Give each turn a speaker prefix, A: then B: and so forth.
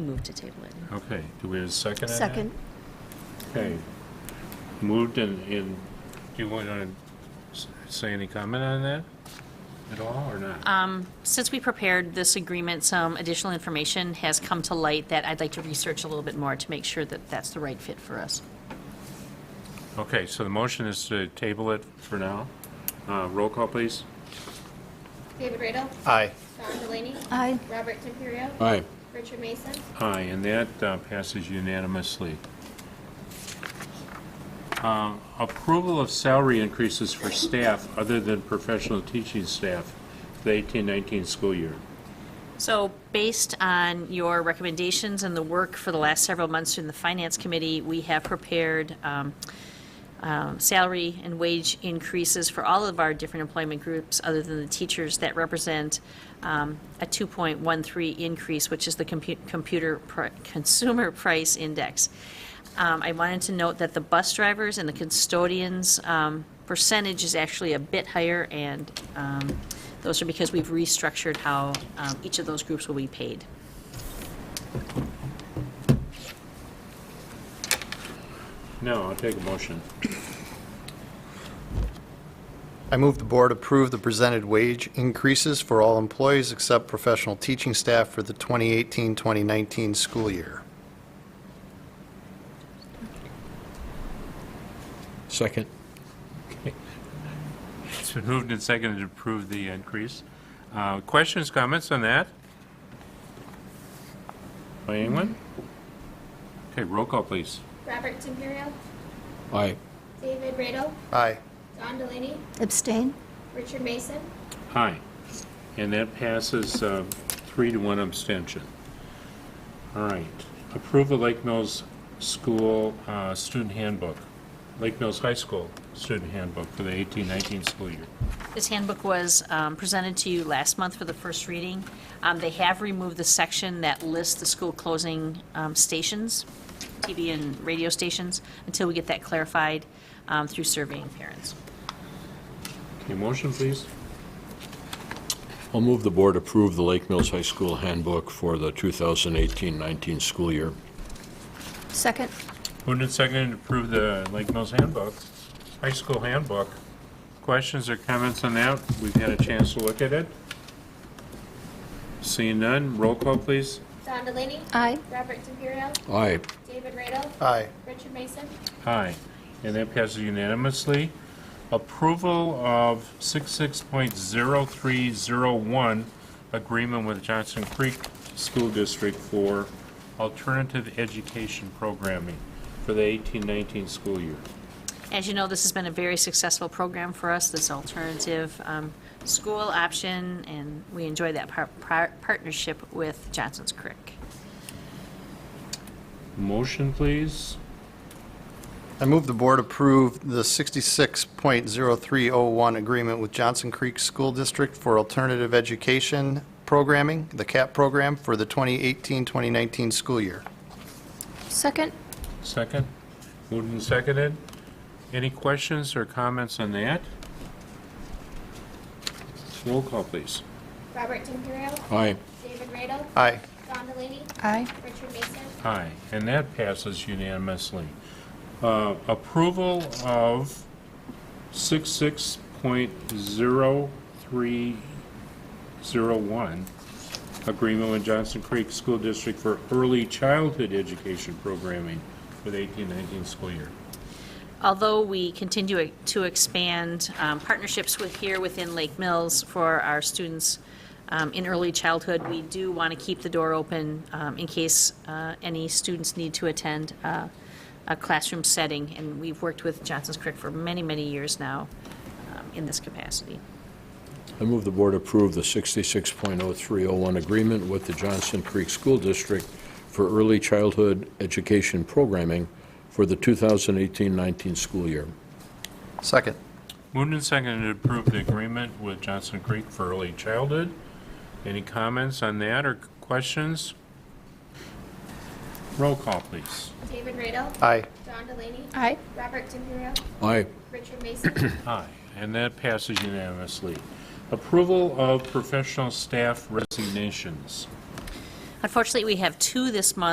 A: Move to table it.
B: Okay, do we have a second on that?
C: Second.
B: Okay. Moved and, and do you want to say any comment on that at all or not?
D: Since we prepared this agreement, some additional information has come to light that I'd like to research a little bit more to make sure that that's the right fit for us.
B: Okay, so the motion is to table it for now. Uh, roll call, please.
E: David Radel.
F: Aye.
E: Don Delaney.
C: Aye.
E: Robert Timperio.
B: Aye.
E: Richard Mason.
B: Aye, and that uh, passes unanimously. Uh, Approval of salary increases for staff other than professional teaching staff for the 18-19 school year.
D: So based on your recommendations and the work for the last several months in the Finance Committee, we have prepared um, um, salary and wage increases for all of our different employment groups, other than the teachers, that represent um, a 2.13 increase, which is the compu- computer, pri- consumer price index. Um, I wanted to note that the bus drivers and the custodians um, percentage is actually a bit higher, and um, those are because we've restructured how um, each of those groups will be paid.
B: No, I'll take a motion.
F: I move the board approve the presented wage increases for all employees except professional teaching staff for the 2018-2019 school year.
G: Second.
B: It's been moved and seconded to approve the increase. Uh, Questions, comments on that? By anyone? Okay, roll call, please.
E: Robert Timperio.
G: Aye.
E: David Radel.
F: Aye.
E: Don Delaney.
C: Abstain?
E: Richard Mason.
B: Aye. And that passes uh, three to one abstention. All right. Approve the Lake Mills School uh, Student Handbook, Lake Mills High School Student Handbook for the 18-19 school year.
D: This handbook was um, presented to you last month for the first reading. Um, They have removed the section that lists the school closing um, stations, TV and radio stations, until we get that clarified um, through surveying parents.
B: Okay, motion, please.
G: I'll move the board approve the Lake Mills High School handbook for the 2018-19 school year.
C: Second?
B: Moved and seconded to approve the Lake Mills handbook, high school handbook. Questions or comments on that? We've had a chance to look at it. Seeing none, roll call, please.
E: Don Delaney.
C: Aye.
E: Robert Timperio.
G: Aye.
E: David Radel.
F: Aye.
E: Richard Mason.
B: Aye. And that passes unanimously. Approval of 66.0301, agreement with Johnson Creek School District for alternative education programming for the 18-19 school year.
D: As you know, this has been a very successful program for us, this alternative um, school option, and we enjoy that par- par- partnership with Johnson's Creek.
B: Motion, please.
F: I move the board approve the 66.0301 agreement with Johnson Creek School District for alternative education programming, the CAP program, for the 2018-2019 school year.
C: Second?
B: Second. Moved and seconded. Any questions or comments on that? Roll call, please.
E: Robert Timperio.
G: Aye.
E: David Radel.
F: Aye.
E: Don Delaney.
C: Aye.
E: Richard Mason.
B: Aye, and that passes unanimously. Uh, Approval of 66.0301, agreement with Johnson Creek School District for early childhood education programming for the 18-19 school year.
D: Although we continue to expand um, partnerships with, here within Lake Mills for our students um, in early childhood, we do want to keep the door open um, in case uh, any students need to attend uh, a classroom setting. And we've worked with Johnson's Creek for many, many years now um, in this capacity.
G: I move the board approve the 66.0301 agreement with the Johnson Creek School District for early childhood education programming for the 2018-19 school year.
F: Second.
B: Moved and seconded to approve the agreement with Johnson Creek for early childhood. Any comments on that or questions? Roll call, please.
E: David Radel.
F: Aye.
E: Don Delaney.
C: Aye.
E: Robert Timperio.
G: Aye.
E: Richard Mason.
B: Aye, and that passes unanimously. Approval of professional staff resignations.
D: Unfortunately, we have two this month.